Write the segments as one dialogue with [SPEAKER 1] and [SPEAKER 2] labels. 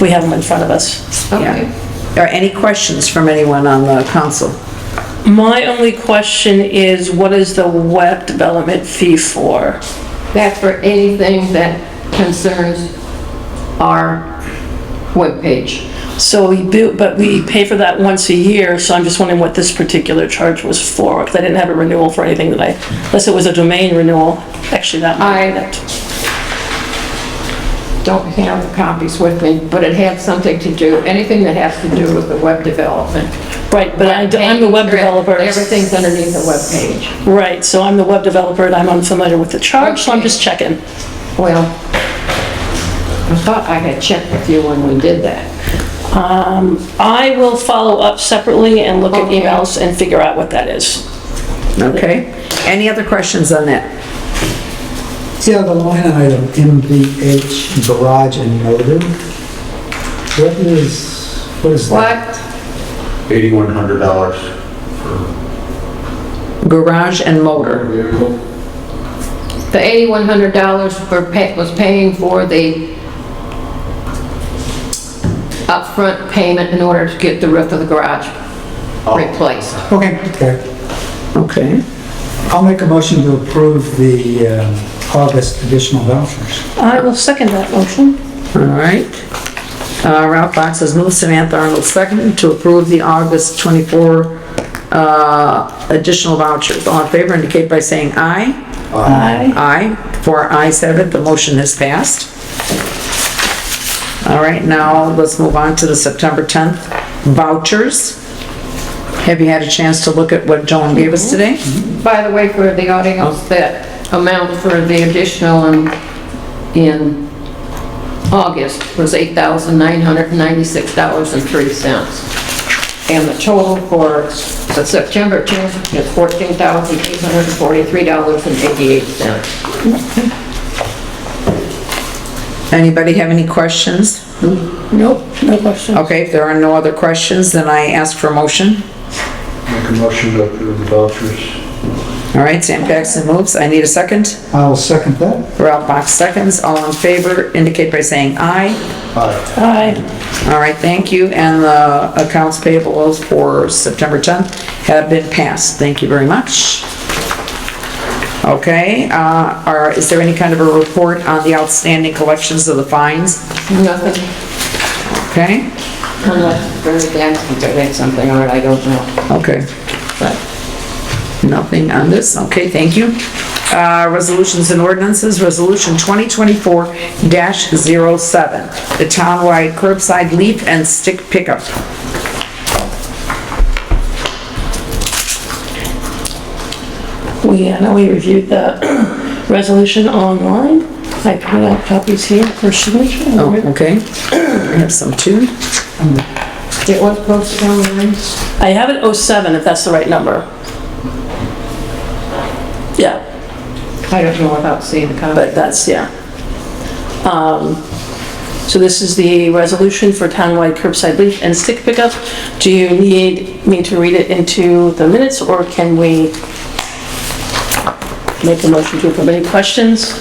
[SPEAKER 1] We have them in front of us.
[SPEAKER 2] Okay.
[SPEAKER 3] Are any questions from anyone on the council?
[SPEAKER 1] My only question is, what is the web development fee for?
[SPEAKER 2] That's for anything that concerns our webpage.
[SPEAKER 1] So we do, but we pay for that once a year, so I'm just wondering what this particular charge was for, because I didn't have a renewal for anything that I, unless it was a domain renewal, actually that might.
[SPEAKER 2] I- Don't have the copies with me, but it had something to do, anything that has to do with the web development.
[SPEAKER 1] Right, but I, am the web developer.
[SPEAKER 2] Everything's underneath the webpage.
[SPEAKER 1] Right, so I'm the web developer and I'm unfamiliar with the charge, so I'm just checking.
[SPEAKER 2] Well, I thought I had checked with you when we did that.
[SPEAKER 1] Um, I will follow up separately and look at
[SPEAKER 2] Okay.
[SPEAKER 1] emails and figure out what that is.
[SPEAKER 3] Okay. Any other questions on that?
[SPEAKER 4] Yeah, the line item, MVH garage and motor. What is, what is that?
[SPEAKER 2] What?
[SPEAKER 5] Eighty-one hundred dollars per
[SPEAKER 3] Garage and motor.
[SPEAKER 5] vehicle.
[SPEAKER 2] The $8,100 for pa- was paying for the upfront payment in order to get the roof of the garage replaced.
[SPEAKER 4] Okay, okay.
[SPEAKER 3] Okay.
[SPEAKER 4] I'll make a motion to approve the um, August additional vouchers.
[SPEAKER 1] I will second that motion.
[SPEAKER 3] All right. Uh, Ralph Box has moved, Samantha Arnold seconded to approve the August 24 uh, additional vouchers. All in favor indicate by saying aye.
[SPEAKER 1] Aye.
[SPEAKER 3] Aye. Four ayes have it, the motion has passed. All right, now let's move on to the September 10th vouchers. Have you had a chance to look at what Joan gave us today?
[SPEAKER 2] By the way, for the audience, that amount for the additional in, in August was $8,996.03. And the total for the September 10th is $14,843.88.
[SPEAKER 3] Anybody have any questions?
[SPEAKER 1] Nope, no question.
[SPEAKER 3] Okay, if there are no other questions, then I ask for a motion.
[SPEAKER 5] Make a motion to approve the vouchers.
[SPEAKER 3] All right, Sam Paxton moves. I need a second.
[SPEAKER 4] I'll second that.
[SPEAKER 3] Ralph Box seconds. All in favor indicate by saying aye.
[SPEAKER 5] Aye.
[SPEAKER 1] Aye.
[SPEAKER 3] All right, thank you. And the accounts payables for September 10th have been passed. Thank you very much. Okay, uh, are, is there any kind of a report on the outstanding collections of the fines?
[SPEAKER 2] Nothing,
[SPEAKER 3] Okay,
[SPEAKER 2] unless Thursday, I think I did something, or I don't know.
[SPEAKER 3] okay.
[SPEAKER 2] But
[SPEAKER 3] Nothing on this, okay, thank you. Uh, Resolutions and ordinances, Resolution 2024-07, the townwide curbside leaf and stick pickup.
[SPEAKER 1] We, I know we reviewed the resolution online. I printed out copies here for signature.
[SPEAKER 3] Oh, okay. I have some too.
[SPEAKER 2] it was posted online.
[SPEAKER 1] I have it 07, if that's the right number. Yeah,
[SPEAKER 2] I don't know without seeing the copy.
[SPEAKER 1] but that's, yeah. Um, So this is the resolution for townwide curbside leaf and stick pickup. Do you need me to read it into the minutes, or can we make a motion to approve? Any questions?
[SPEAKER 6] You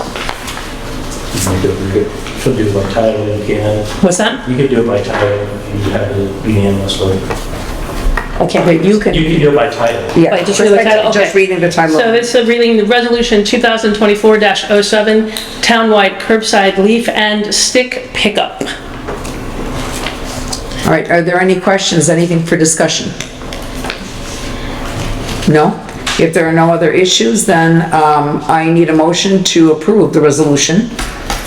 [SPEAKER 6] could- you could- Should do it by title if you can.
[SPEAKER 1] What's that?
[SPEAKER 6] You could do it by title if you have it unanimously.
[SPEAKER 3] Okay, you
[SPEAKER 6] You
[SPEAKER 3] can,
[SPEAKER 6] could do it by title.
[SPEAKER 3] yeah.
[SPEAKER 1] Wait, just read the title,
[SPEAKER 3] Just
[SPEAKER 1] okay.
[SPEAKER 3] reading the title.
[SPEAKER 1] So this is reading the resolution 2024-07, townwide curbside leaf and stick pickup. Uh,
[SPEAKER 3] All right, are there any questions, anything for discussion? No? If there are no other issues, then um, I need a motion to approve the resolution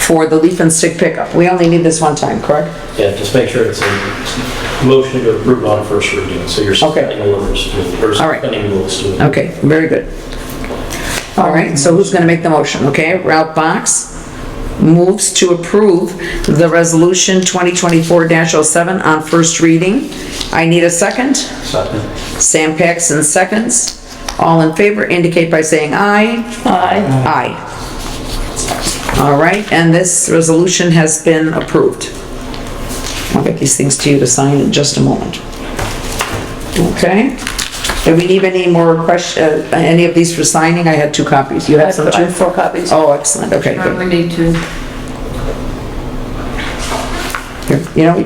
[SPEAKER 3] for the leaf and stick pickup. We only need this one time, correct?
[SPEAKER 6] Yeah, just make sure it's a motion to approve on first reading, so you're
[SPEAKER 3] Okay.
[SPEAKER 6] suspending orders, to- or
[SPEAKER 3] All right.
[SPEAKER 6] suspending rules to it.
[SPEAKER 3] Okay, very good. All right, so who's gonna make the motion, okay? Ralph Box moves to approve the resolution 2024-07 on first reading. I need a second.
[SPEAKER 6] Second.
[SPEAKER 3] Sam Paxton seconds. All in favor indicate by saying aye.
[SPEAKER 1] Aye.
[SPEAKER 3] Aye. All right, and this resolution has been approved. I'll get these things to you to sign in just a moment. Okay? Do we need any more question, uh, any of these for signing? I had two copies. You
[SPEAKER 1] I
[SPEAKER 3] have some
[SPEAKER 1] have I have
[SPEAKER 3] too?
[SPEAKER 1] four copies.
[SPEAKER 3] Oh,
[SPEAKER 2] Um,
[SPEAKER 3] excellent, okay,
[SPEAKER 2] Uh,
[SPEAKER 3] good.
[SPEAKER 2] We need to.
[SPEAKER 3] You know,